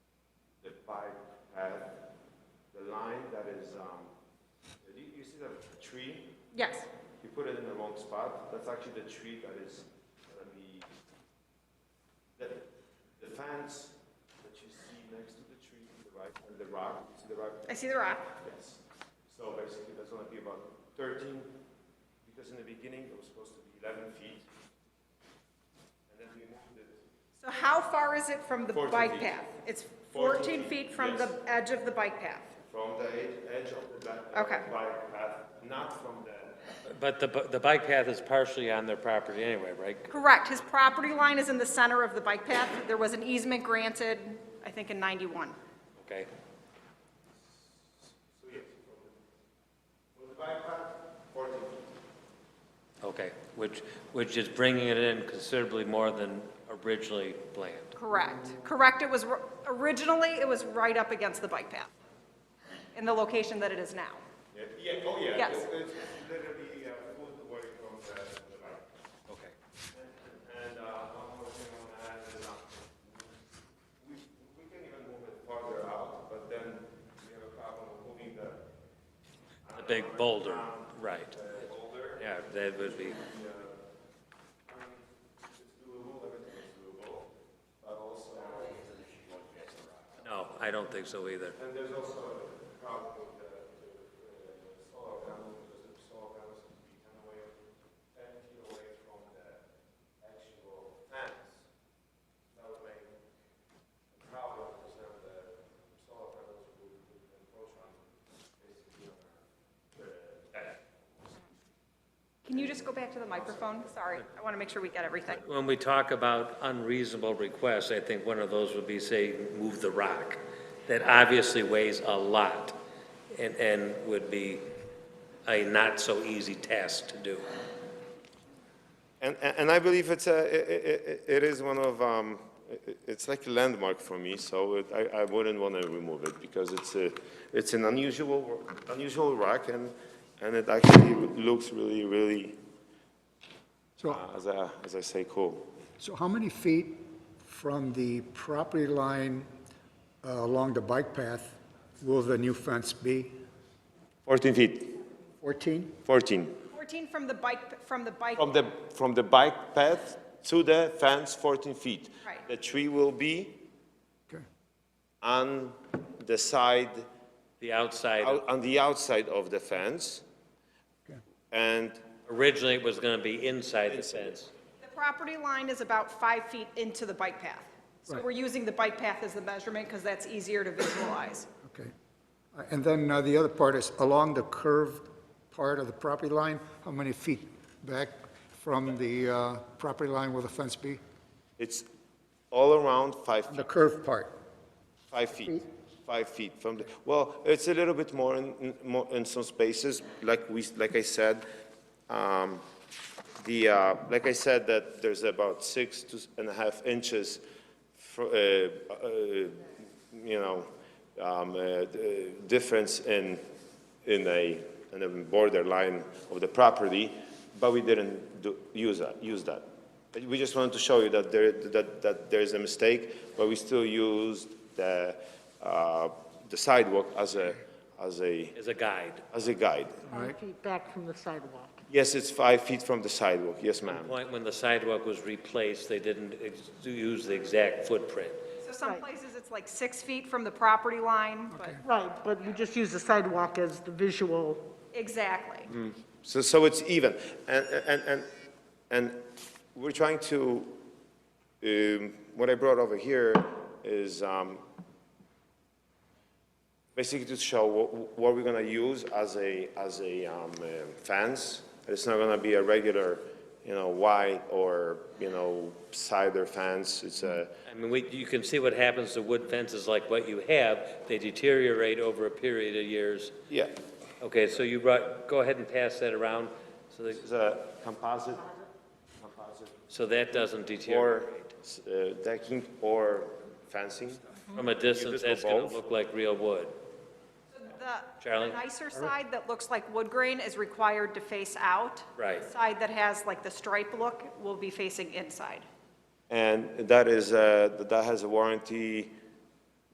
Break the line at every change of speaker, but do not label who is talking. um,
Yes,
You put it in the wrong spot. That's actually the tree that is on the, the, the fence that you see next to the tree to the right, and the rock, you see the rock?
I see the rock.
Yes. So basically, that's gonna be about thirteen, because in the beginning, it was supposed to be eleven feet. And then we moved it
So how far is it from the
14
bike
feet.
path? It's
14 feet,
14 feet from the
yes.
edge of the bike path.
from the ed- edge of the back,
Okay.
bike path, not from the,
But the, bu- the bike path is partially on their property anyway, right?
Correct, his property line is in the center of the bike path. There was an easement granted, I think in 91.
Okay.
so yes, from the, from the bike path, fourteen feet.
Okay, which, which is bringing it in considerably more than originally planned.
Correct, correct, it was, r- originally, it was right up against the bike path in the location that it is now.
Yeah, yeah, oh yeah.
Yes.
It's, it's literally a foot away from the, the light.
Okay.
And, uh, one more thing on that is, uh, we, we can even move it farther out, but then we have a problem of moving the,
The big boulder, right.
the boulder.
Yeah, that would be,
Yeah. I mean, it's doable, everything is doable, but also,
no, I don't think so either.
and there's also a problem with the, the uh, solar panels, because the solar panels can be ten away, ten feet away from the actual fence. That would make a problem, because then the solar panels would would encroach on basically on our, uh,
Can you just go back to the microphone? Sorry, I want to make sure we get everything.
When we talk about unreasonable requests, I think one of those would be, say, move the rock. That obviously weighs a lot and, and would be a not-so-easy task to do.
And, and and I believe it's a, it, it is one of, um, i- i- it's like a landmark for me, so it- I, I wouldn't want to remove it because it's a, it's an unusual, unusual rock and, and it actually looks really, really,
So,
uh, as I, as I say, cool.
so how many feet from the property line uh, along the bike path will the new fence be?
14 feet,
14?
14.
14 from the bike, from the bike,
From the, from the bike path to the fence, 14 feet.
Right.
The tree will be
Okay.
on the side
The outside,
out- on the outside of the fence.
Okay.
And
originally it was gonna be inside the fence.
the property line is about five feet into the bike path. So
Right.
we're using the bike path as the measurement because that's easier to visualize.
Okay. Uh, And then uh, the other part is along the curved part of the property line, how many feet back from the uh, property line will the fence be?
it's all around five,
The curved part.
five feet, five feet from the, well, it's a little bit more in, in- more in some spaces, like we, like I said. um, The, uh, like I said, that there's about six to s- and a half inches, fro- uh, uh, you know, um, uh, d- uh, difference in, in a, in the borderline of the property, but we didn't do, use that, use that. But We just wanted to show you that there, that, that there is a mistake, but we still used the, uh, the sidewalk as a, as a,
as a guide.
as a guide.
Five feet back from the sidewalk.
Yes, it's five feet from the sidewalk, yes, ma'am.
Point when the sidewalk was replaced, they didn't ex- use the exact footprint.
So some
Right.
places it's like six feet from the property line, but,
Right, but we just use the sidewalk as the visual.
exactly.
Hmm.
So, so it's even. And, and, and, and we're trying to, um, what I brought over here is, um, basically to show what, what we're gonna use as a, as a, um, uh, fence. It's not gonna be a regular, you know, white or, you know, cider fence. It's a,
I mean, we, you can see what happens to wood fences like what you have, they deteriorate over a period of years.
yeah,
Okay, so you brought, go ahead and pass that around, so that,
it's a composite, composite
so that doesn't
or,
deteriorate.
uh, decking or fencing.
From a distance,
just go
that's gonna
both?
look like real wood.
The
Charlie?
nicer side that looks like wood grain is required to face out.
Right.
The Side that has like the stripe look will be facing inside.
And that is, uh, that has a warranty